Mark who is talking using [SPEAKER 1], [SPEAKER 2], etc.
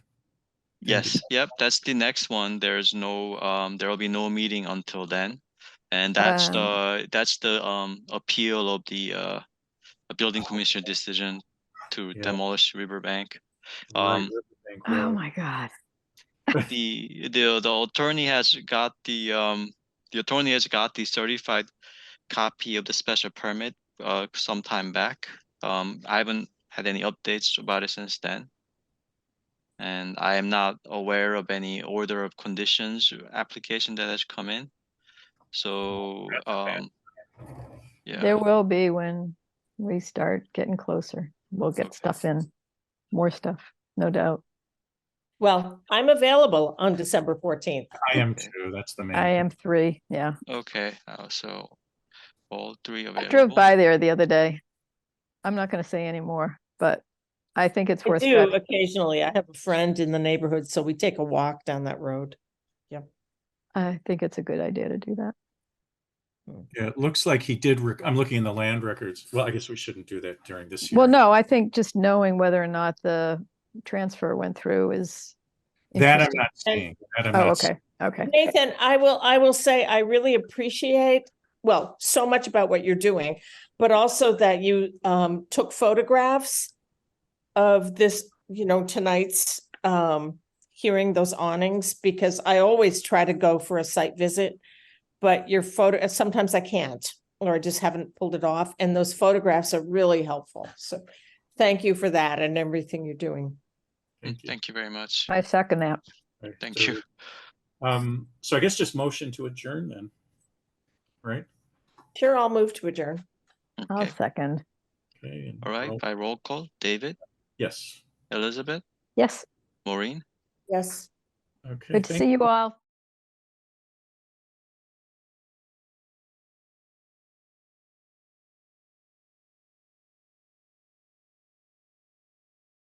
[SPEAKER 1] Yes, yep, that's the next one. There's no, um, there will be no meeting until then. And that's the, that's the, um, appeal of the, uh, a building commissioner decision to
[SPEAKER 2] Yeah.
[SPEAKER 1] demolish Riverbank.
[SPEAKER 2] Right,
[SPEAKER 1] Um,
[SPEAKER 2] Riverbank
[SPEAKER 3] Oh
[SPEAKER 2] Road.
[SPEAKER 3] my God.
[SPEAKER 1] The, the, the attorney has got the, um, the attorney has got the certified copy of the special permit, uh, some time back. Um, I haven't had any updates about it since then. And I am not aware of any order of conditions or application that has come in. So, um, yeah,
[SPEAKER 3] There will be when we start getting closer. We'll get stuff in, more stuff, no doubt.
[SPEAKER 4] Well, I'm available on December fourteenth.
[SPEAKER 2] I am too, that's the main.
[SPEAKER 3] I am three, yeah.
[SPEAKER 1] okay, uh, so all three
[SPEAKER 3] I drove
[SPEAKER 1] available.
[SPEAKER 3] by there the other day. I'm not gonna say anymore, but I think it's
[SPEAKER 4] I
[SPEAKER 3] worth
[SPEAKER 4] do
[SPEAKER 3] it.
[SPEAKER 4] occasionally. I have a friend in the neighborhood, so we take a walk down that road.
[SPEAKER 3] I think it's a good idea to do that.
[SPEAKER 2] Yeah, it looks like he did, rec- I'm looking in the land records. Well, I guess we shouldn't do that during this year.
[SPEAKER 3] Well, no, I think just knowing whether or not the transfer went through is.
[SPEAKER 2] That I'm
[SPEAKER 3] interesting.
[SPEAKER 2] not seeing. that I'm
[SPEAKER 3] Oh,
[SPEAKER 2] not seeing.
[SPEAKER 3] okay, okay.
[SPEAKER 4] Nathan, I will, I will say, I really appreciate, well, so much about what you're doing, but also that you um took photographs of this, you know, tonight's um hearing those awnings, because I always try to go for a site visit. But your photo, sometimes I can't, or I just haven't pulled it off, and those photographs are really helpful. So thank you for that and everything you're doing.
[SPEAKER 1] Mm, Thank you very much.
[SPEAKER 3] I second that.
[SPEAKER 2] Right,
[SPEAKER 1] Thank
[SPEAKER 2] so-
[SPEAKER 1] you.
[SPEAKER 2] Um, so I guess just motion to adjourn then. Right?
[SPEAKER 4] Sure, I'll move to adjourn.
[SPEAKER 3] I'll
[SPEAKER 1] Okay,
[SPEAKER 3] second.
[SPEAKER 2] Okay. and
[SPEAKER 1] all right,
[SPEAKER 2] roll-
[SPEAKER 1] by roll call, David,
[SPEAKER 2] Yes.
[SPEAKER 1] Elizabeth,
[SPEAKER 3] Yes,
[SPEAKER 1] Maureen,
[SPEAKER 4] Yes.
[SPEAKER 2] Okay.
[SPEAKER 3] good to
[SPEAKER 2] thank-
[SPEAKER 3] see you all.